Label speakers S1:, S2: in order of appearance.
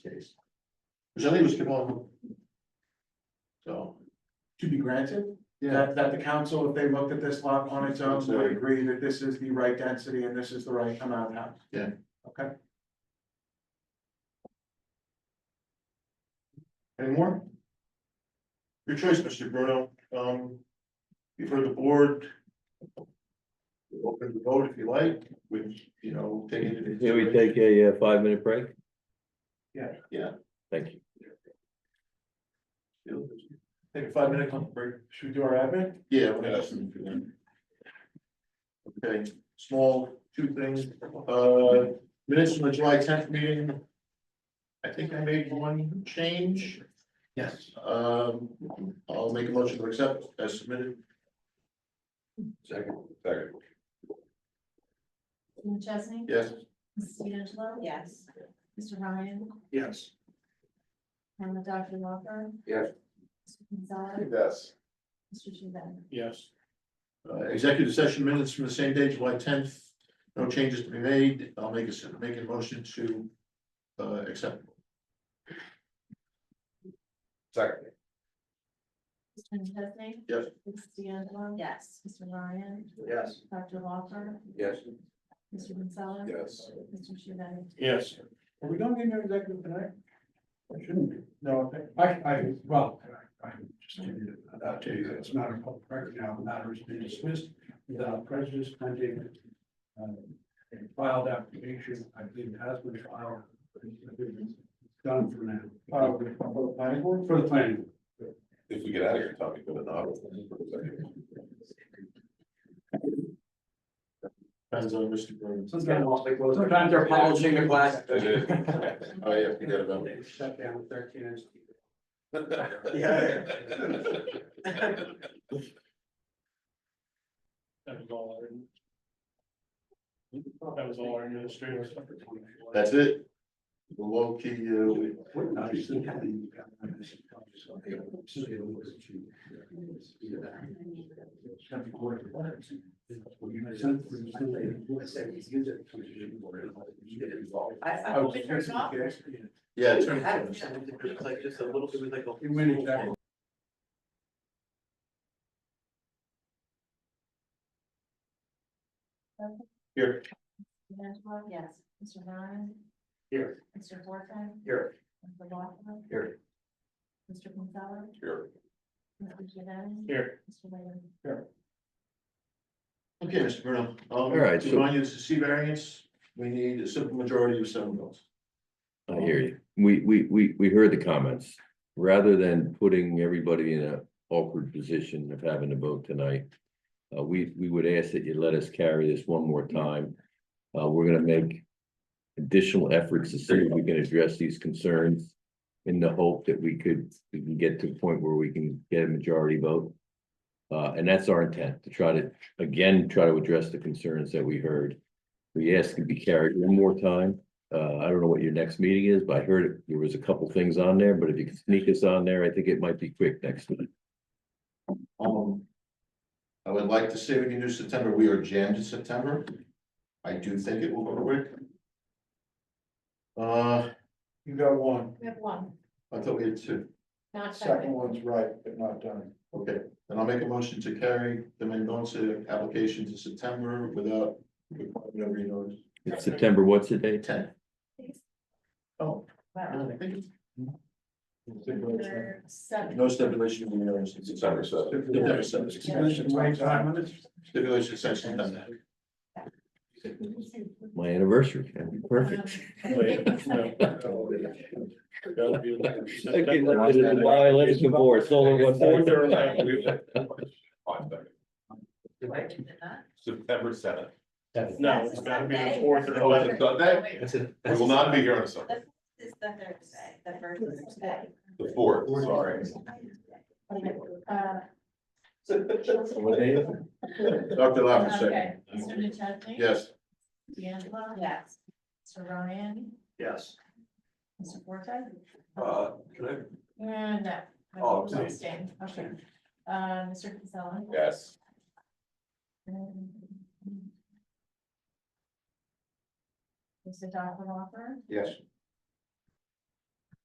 S1: Jalee que bom. So,
S2: to be granted,
S1: yeah,
S2: that, that the council, if they looked at this lot on its own, would agree that this is the right density and this is the right amount of house.
S1: Yeah.
S2: Okay,
S1: any more? Your choice, Mr. Bruno, um, you've heard the board. You're Open to vote if you like, which, you know, take it. into
S3: Can we
S1: consideration.
S3: take a uh, five minute break?
S2: Yeah.
S1: Yeah.
S3: Thank you.
S1: Take a five minute comfort break.
S2: should we do our admin?
S1: Yeah. we're gonna ask them to do that. Okay, small, two things, uh, minutes from the July tenth meeting. I think I made one change.
S2: Yes.
S1: Um, I'll make a motion to accept as submitted. Second. Second.
S4: Mr. McChesney?
S1: Yes,
S4: Mrs. D'Angelo? Yes. Mr. Ryan?
S2: Yes.
S4: And Dr. Walker?
S1: Yes.
S4: Mr. Gonzalez?
S1: Yes.
S4: Mr. Shuben?
S2: Yes.
S1: Uh, executive session minutes from the same day, July tenth, no changes to be made, I'll make a, s- make a motion to, uh, accept. Second.
S4: Mr. McChesney?
S1: Yes.
S4: Mrs. D'Angelo? Yes. Mr. Ryan?
S1: Yes.
S4: Dr. Walker?
S1: Yes.
S4: Mr. Gonzalez?
S1: Yes.
S4: Mr. Shuben?
S1: Yes.
S2: Are we going into executive tonight?
S1: I shouldn't be.
S2: No,
S5: I, I, well, I, I just give you, I'll tell you that it's not a public record now, the matter has been dismissed without prejudice pending. uh, A filed application, I believe it has been filed. I believe it's Done for now.
S2: uh, for the planning board?
S5: For the planning.
S6: If we get out of here, Tommy, go to Nautilus.
S1: Depends on Mr. Burns.
S5: Sometimes they're polishing the glass.
S6: It is. Oh, yeah, forget about it.
S5: Shut down thirteen inches.
S2: That was all our. That was all our administrators.
S1: That's it. The low key, uh, we-
S5: What not, you still have the- So they don't listen to you. Either that. It's gotta be quarter to one. Well, you know, some- some they- I said, it's good that it comes to you, or it'll- you get involved.
S7: I-
S2: I was
S7: Open yours up.
S5: Yeah.
S1: yeah, it's
S7: That- It was like just a little, it was like a.
S5: It went exactly.
S1: Here.
S4: D'Angelo? Yes. Mr. Ryan?
S5: Here.
S4: Mr. Forte?
S7: Here.
S4: Dr. Walker?
S7: Here.
S4: Mr. Gonzalez?
S6: Here.
S4: Mr. Shuben?
S2: Here.
S4: Mr. Ryan?
S1: Okay, Mr. Bruno, um,
S3: All right, so-
S1: remind you, this is C variance, we need a simple majority of seven votes.
S3: I hear you. We, we, we, we heard the comments. Rather than putting everybody in a awkward position of having to vote tonight. Uh, we, we would ask that you let us carry this one more time. Uh, we're gonna make additional efforts to see if we can address these concerns. In the hope that we could, we can get to a point where we can get a majority vote. Uh, and that's our intent, to try to, again, try to address the concerns that we heard. We ask to be carried one more time. Uh, I don't know what your next meeting is, but I heard there was a couple things on there, but if you could sneak us on there, I think it might be quick next week.
S1: Um. I would like to say we can do September, we are jammed in September. I do think it will go quick. Uh,
S2: You got one,
S4: We have one,
S1: I thought we had two,
S4: not
S2: second one's right, but not done.
S1: okay, then I'll make a motion to carry the Mendoza application to September without. Whatever you know,
S3: It's September, what's the date?
S1: ten. Oh.
S4: Wow.
S1: I think it's-
S4: Number seven.
S1: No stipulation, you know, it's- it's-
S6: September seventh.
S1: September seventh.
S5: Stipulation, wait, time on this?
S1: Stipulation section done that.
S3: My anniversary, that'd be perfect. Okay, let it in my, let it in board, it's only one day.
S6: September seventh.
S2: No, it's gotta be the fourth or
S6: Oh, it's
S2: eleventh.
S6: a Sunday? We will not be here on Sunday,
S4: This is the Thursday, the first Thursday.
S6: the fourth, sorry.
S4: Uh,
S1: Dr. Lavin, second.
S4: okay, Mr. Nuchesny?
S1: Yes.
S4: D'Angelo? Yes. Mr. Ryan?
S7: Yes.
S4: Mr. Forte?
S7: Uh, can I
S4: And no.
S7: Oh,
S4: I'm abstaining. Okay. Uh, Mr. Casella?
S6: Yes.
S4: Mr. Dr. Walker?
S6: Yes.